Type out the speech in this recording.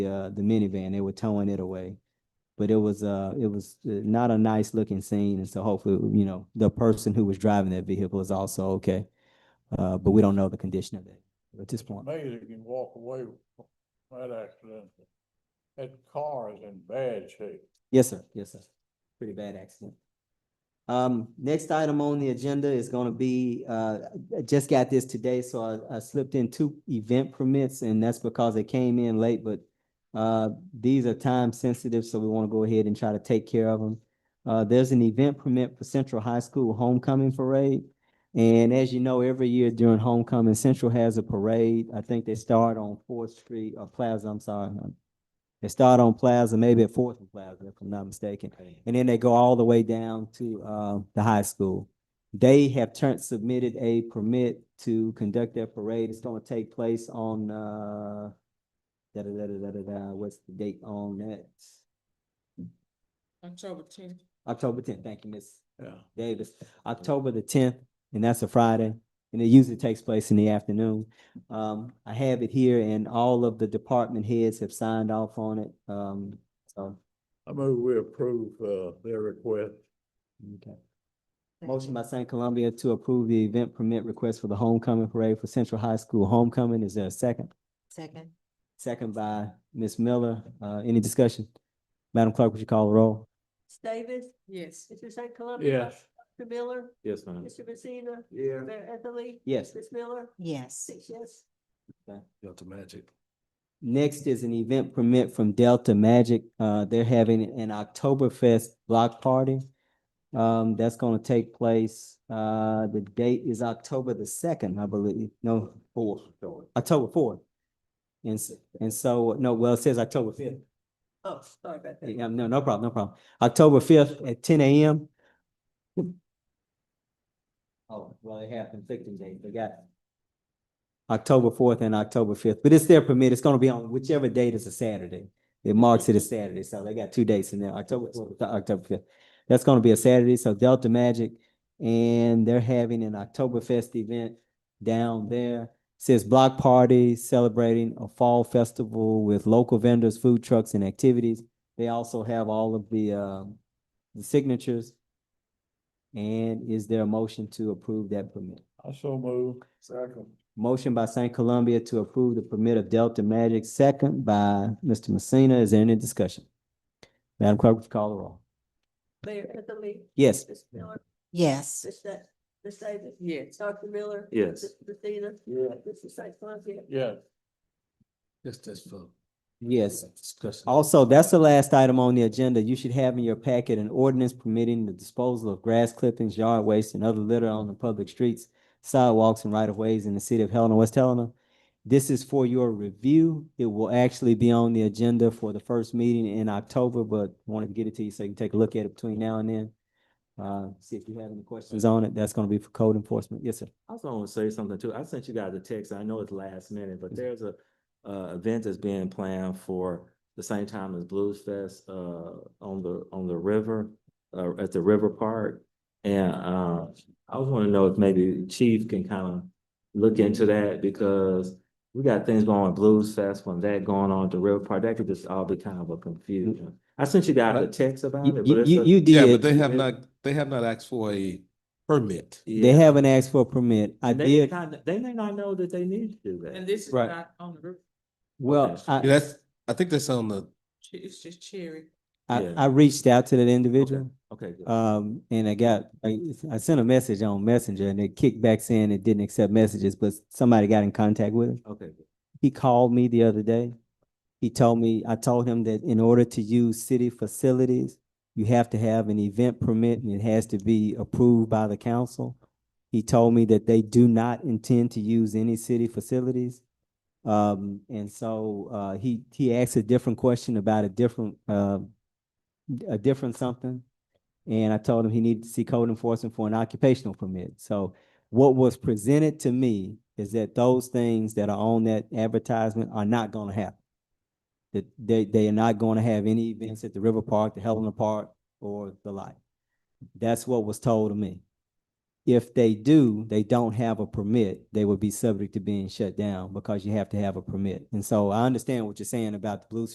uh, the minivan. They were towing it away. But it was, uh, it was uh, not a nice looking scene. And so hopefully, you know, the person who was driving that vehicle is also okay. Uh, but we don't know the condition of it at this point. amazing you can walk away from that accident. That car is in bad shape. Yes, sir. Yes, sir. Pretty bad accident. Um, next item on the agenda is gonna be, uh, I just got this today, so I, I slipped in two event permits and that's because they came in late, but uh, these are time sensitive, so we wanna go ahead and try to take care of them. Uh, there's an event permit for Central High School Homecoming Parade. And as you know, every year during homecoming, Central has a parade. I think they start on Fourth Street or Plaza, I'm sorry. They start on Plaza, maybe at Fourth and Plaza, if I'm not mistaken. And then they go all the way down to uh, the high school. They have turned, submitted a permit to conduct their parade. It's gonna take place on, uh, da, da, da, da, da, da, da, what's the date on that? October tenth. October tenth, thank you, Miss Yeah. Davis, October the tenth, and that's a Friday. And it usually takes place in the afternoon. Um, I have it here and all of the department heads have signed off on it. Um, so, I move we approve, uh, their request. okay. Motion by St. Columbia to approve the event permit request for the homecoming parade for Central High School homecoming. Is there a second? Second. Second by Ms. Miller. Uh, any discussion? Madam Clerk, would you call the roll? Ms. Davis, Yes. Mr. St. Columbia. Yes. Mr. Miller, Yes, ma'am. Mr. Messina, Yeah. Mayor Ethelley. Yes. Ms. Miller, Yes. six yes. That's magic. Next is an event permit from Delta Magic. Uh, they're having an Oktoberfest block party. Um, that's gonna take place, uh, the date is October the second, I believe, no, fourth, October fourth. And, s- and so, no, well, it says October fifth. Oh, sorry about that. Yeah, no, no problem, no problem. October fifth at ten AM. Oh, well, they have conflicting dates, they got October fourth and October fifth, but it's their permit, it's gonna be on whichever date is a Saturday. It marks it as Saturday, so they got two dates in there, October fourth, October fifth. That's gonna be a Saturday, so Delta Magic, and they're having an Oktoberfest event down there. Says block party celebrating a fall festival with local vendors, food trucks and activities. They also have all of the, um, the signatures. And is there a motion to approve that permit? I so move. Second. Motion by St. Columbia to approve the permit of Delta Magic, second by Mr. Messina. Is there any discussion? Madam Clerk, would you call the roll? Mayor Ethelley, Yes. Ms. Miller, Yes. Ms. Da- Ms. Davis. Yes. Dr. Miller. Yes. Mr. Messina, Yeah. Mr. St. Columbia. Yes. Just as for. Yes. Discussion. Also, that's the last item on the agenda. You should have in your packet an ordinance permitting the disposal of grass clippings, yard waste, and other litter on the public streets, sidewalks, and right-of-ways in the city of Helena, West Helena. This is for your review. It will actually be on the agenda for the first meeting in October, but wanted to get it to you so you can take a look at it between now and then. Uh, see if you have any questions on it. That's gonna be for code enforcement. Yes, sir. I was gonna say something too. I sent you guys a text. I know it's last minute, Mm-hmm. but there's a, uh, event that's being planned for the same time as Blues Fest, uh, on the, on the river, uh, at the River Park. And, uh, I was wanna know if maybe Chief can kind of look into that because we got things going on Blues Fest, when that going on at the River Park, that could just all be kind of a confusion. I sent you guys a text about You, it. but you, it's you- a- you Yeah, but did. they have not, they have not asked for a permit. They Yeah. haven't asked for a permit. I They may did, not, they may not know that they need to do And that. this is Right. not on the roof. well, I, Yeah, That's, I think that's on the, Ch- It's just cherry. I, Yeah. I reached out to that individual, Okay, good. um, and I got, I, I sent a message on Messenger and it kicked back saying it didn't accept messages, but somebody got in contact with him. okay, good. He called me the other day. He told me, I told him that in order to use city facilities, you have to have an event permit and it has to be approved by the council. He told me that they do not intend to use any city facilities. Um, and so, uh, he, he asked a different question about a different, uh, a different something. And I told him he needed to see code enforcement for an occupational permit. So what was presented to me is that those things that are on that advertisement are not gonna happen. That they, they are not gonna have any events at the River Park, the Helena Park, or the like. That's what was told to me. If they do, they don't have a permit, they would be subject to being shut down because you have to have a permit. And so I understand what you're saying about the Blues